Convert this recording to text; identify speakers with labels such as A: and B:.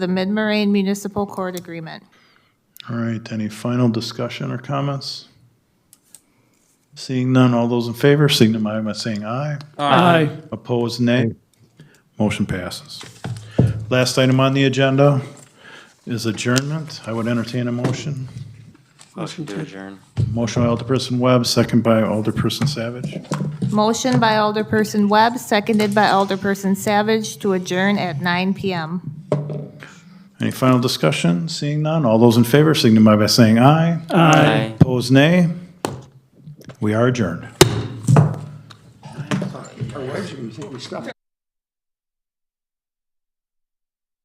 A: the Mid-Moraine Municipal Court Agreement.
B: All right, any final discussion or comments? Seeing none, all those in favor signify by saying aye.
C: Aye.
B: Opposed, nay. Motion passes. Last item on the agenda is adjournment. I would entertain a motion.
C: Motion to
D: adjourn.
B: Motion by Alderperson Webb, second by Alderperson Savage.
A: Motion by Alderperson Webb, seconded by Alderperson Savage to adjourn at 9 PM.
B: Any final discussion? Seeing none, all those in favor signify by saying aye.
D: Aye.
B: Opposed, nay. We are adjourned.
E: Our wives are gonna think we stopped.